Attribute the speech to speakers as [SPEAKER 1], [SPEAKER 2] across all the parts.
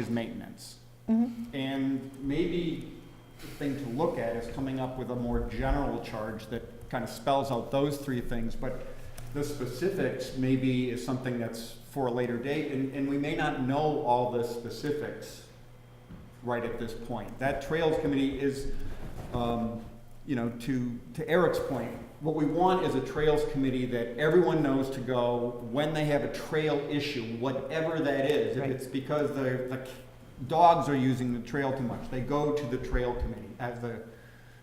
[SPEAKER 1] is maintenance.
[SPEAKER 2] Mm-hmm.
[SPEAKER 1] And maybe the thing to look at is coming up with a more general charge that kind of spells out those three things, but the specifics maybe is something that's for a later date, and, and we may not know all the specifics right at this point. That Trails Committee is, um, you know, to, to Eric's point, what we want is a Trails Committee that everyone knows to go when they have a trail issue, whatever that is. If
[SPEAKER 2] Right.
[SPEAKER 1] it's because the, the dogs are using the trail too much, they go to the Trail Committee as the,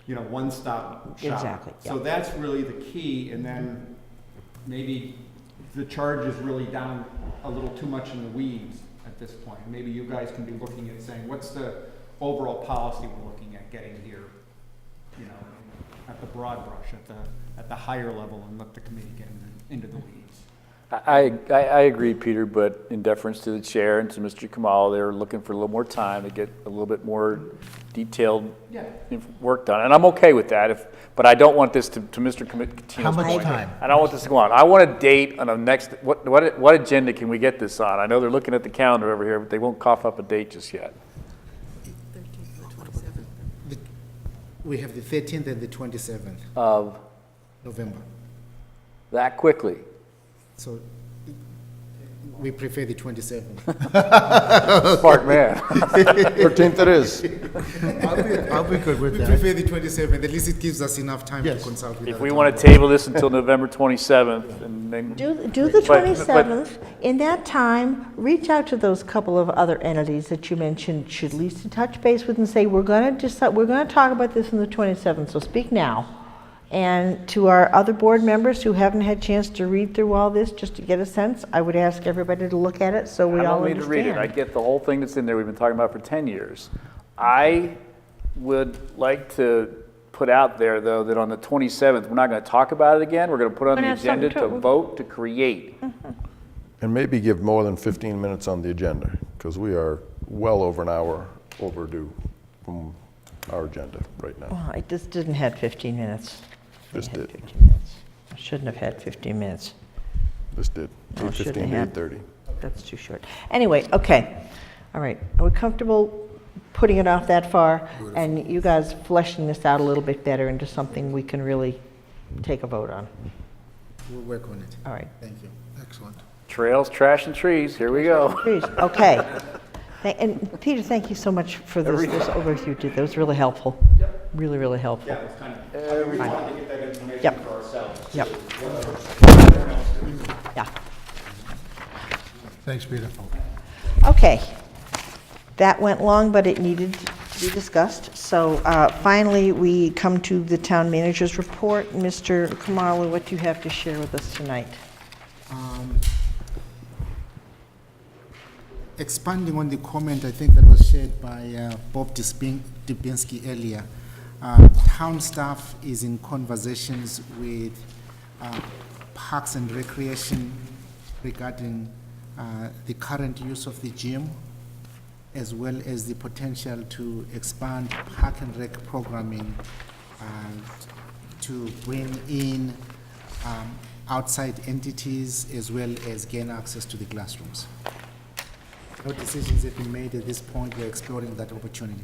[SPEAKER 1] you know, one-stop shop.
[SPEAKER 2] Exactly,
[SPEAKER 1] So
[SPEAKER 2] yeah.
[SPEAKER 1] that's really the key, and then maybe the charge is really down a little too much in the weeds at this point. Maybe you guys can be looking at saying, what's the overall policy we're looking at getting here? You know, at the broad brush, at the, at the higher level, and let the committee get in- into the weeds.
[SPEAKER 3] I, I, I agree, Peter, but in deference to the chair and to Mr. Kamal, they're looking for a little more time to get a little bit more detailed
[SPEAKER 1] Yeah.
[SPEAKER 3] inf- work done, and I'm okay with that, if, but I don't want this to, to Mr. Commi- Catino's
[SPEAKER 4] How much
[SPEAKER 3] point.
[SPEAKER 4] time?
[SPEAKER 3] I don't want this to go on. I want a date on a next, what, what, what agenda can we get this on? I know they're looking at the calendar over here, but they won't cough up a date just yet.
[SPEAKER 4] The- We have the 13th and the 27th,
[SPEAKER 5] Uh.
[SPEAKER 3] Of
[SPEAKER 4] November.
[SPEAKER 3] that quickly.
[SPEAKER 4] So we prefer the 27th.
[SPEAKER 3] Smart man.
[SPEAKER 6] 13th it is.
[SPEAKER 5] I'll be, I'll be good
[SPEAKER 4] We
[SPEAKER 5] with that.
[SPEAKER 4] prefer the 27th, at least it gives us enough time to
[SPEAKER 5] Yes.
[SPEAKER 4] consult with
[SPEAKER 3] If
[SPEAKER 4] our
[SPEAKER 3] we
[SPEAKER 4] town
[SPEAKER 3] want
[SPEAKER 4] board.
[SPEAKER 3] to table this until November 27th, and then.
[SPEAKER 2] Do, do the
[SPEAKER 3] But- but-
[SPEAKER 2] 27th. In that time, reach out to those couple of other entities that you mentioned should at least touch base with and say, we're going to decide, we're going to talk about this on the 27th, so speak now. And to our other board members who haven't had a chance to read through all this, just to get a sense, I would ask everybody to look at it so we
[SPEAKER 3] I
[SPEAKER 2] all
[SPEAKER 3] don't need
[SPEAKER 2] understand.
[SPEAKER 3] to read it. I get the whole thing that's in there we've been talking about for 10 years. I would like to put out there, though, that on the 27th, we're not going to talk about it again. We're going to put on
[SPEAKER 7] We're
[SPEAKER 3] the
[SPEAKER 7] gonna have something
[SPEAKER 3] agenda to
[SPEAKER 7] to-
[SPEAKER 3] vote to create.
[SPEAKER 6] And maybe give more than 15 minutes on the agenda, because we are well over an hour overdue from our agenda right now.
[SPEAKER 2] Well, I just didn't have 15 minutes. I
[SPEAKER 6] Just
[SPEAKER 2] had
[SPEAKER 6] did.
[SPEAKER 2] 15 minutes. I shouldn't have had 15 minutes.
[SPEAKER 6] This did,
[SPEAKER 2] No, it shouldn't
[SPEAKER 6] 8:15
[SPEAKER 2] have.
[SPEAKER 6] to 8:30.
[SPEAKER 2] That's too short. Anyway, okay, all right. Are we comfortable putting it off that far? And you guys fleshing this out a little bit better into something we can really take a vote on?
[SPEAKER 4] We'll work on it.
[SPEAKER 2] All right,
[SPEAKER 4] Thank you.
[SPEAKER 5] Excellent.
[SPEAKER 3] Trails, trash, and trees, here we go.
[SPEAKER 2] please, okay. Thank- And Peter, thank you so much for this this overview, you did. That was really helpful. Yep. Really, really helpful.
[SPEAKER 1] Yeah, it's kind of, I mean, we wanted to get that information
[SPEAKER 2] Yep.
[SPEAKER 1] for ourselves.
[SPEAKER 2] Yep.
[SPEAKER 1] Everyone else doing it.
[SPEAKER 2] Yeah.
[SPEAKER 5] Thanks, Peter.
[SPEAKER 2] Okay. That went long, but it needed to be discussed. So uh, finally, we come to the town manager's report. Mr. Kamala, what do you have to share with us tonight?
[SPEAKER 4] Um, Expanding on the comment, I think that was shared by uh, Bob Dispin- Dubinsky earlier, uh, town staff is in conversations with uh, Parks and Recreation regarding uh, the current use of the gym, as well as the potential to expand park and rec programming uh, to bring in um, outside entities as well as gain access to the classrooms. No decisions have been made at this point, we're exploring that opportunity.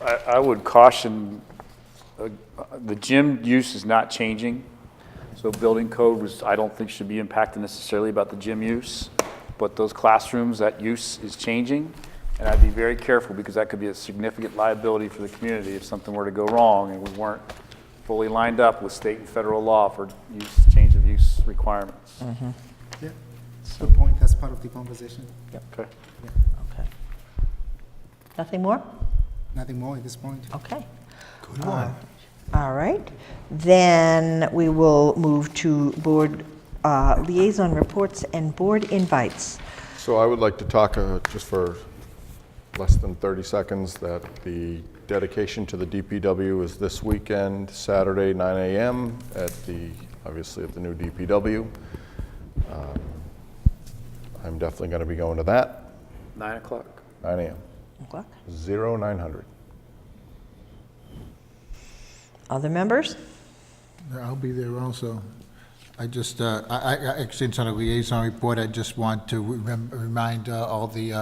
[SPEAKER 3] I, I would caution, uh, the gym use is not changing. So building code was, I don't think should be impacted necessarily about the gym use. But those classrooms, that use is changing. And I'd be very careful because that could be a significant liability for the community if something were to go wrong and we weren't fully lined up with state and federal law for use, change of use requirements.
[SPEAKER 4] Yeah, good point, that's part of the conversation.
[SPEAKER 3] Okay.
[SPEAKER 2] Okay. Nothing more?
[SPEAKER 4] Nothing more at this point.
[SPEAKER 2] Okay. Uh,
[SPEAKER 5] Good one.
[SPEAKER 2] All right. Then we will move to board uh, liaison reports and board invites.
[SPEAKER 6] So I would like to talk, uh, just for less than 30 seconds, that the dedication to the DPW is this weekend, Saturday, 9 a.m., at the, obviously, at the new DPW. Um, I'm definitely going to be going to that,
[SPEAKER 3] Nine o'clock.
[SPEAKER 6] 9 a.m.,
[SPEAKER 2] O'clock.
[SPEAKER 6] 0900.
[SPEAKER 2] Other members?
[SPEAKER 5] I'll be there also. I just, uh, I, I, actually, it's on a liaison report, I just want to remem- remind uh, all the uh,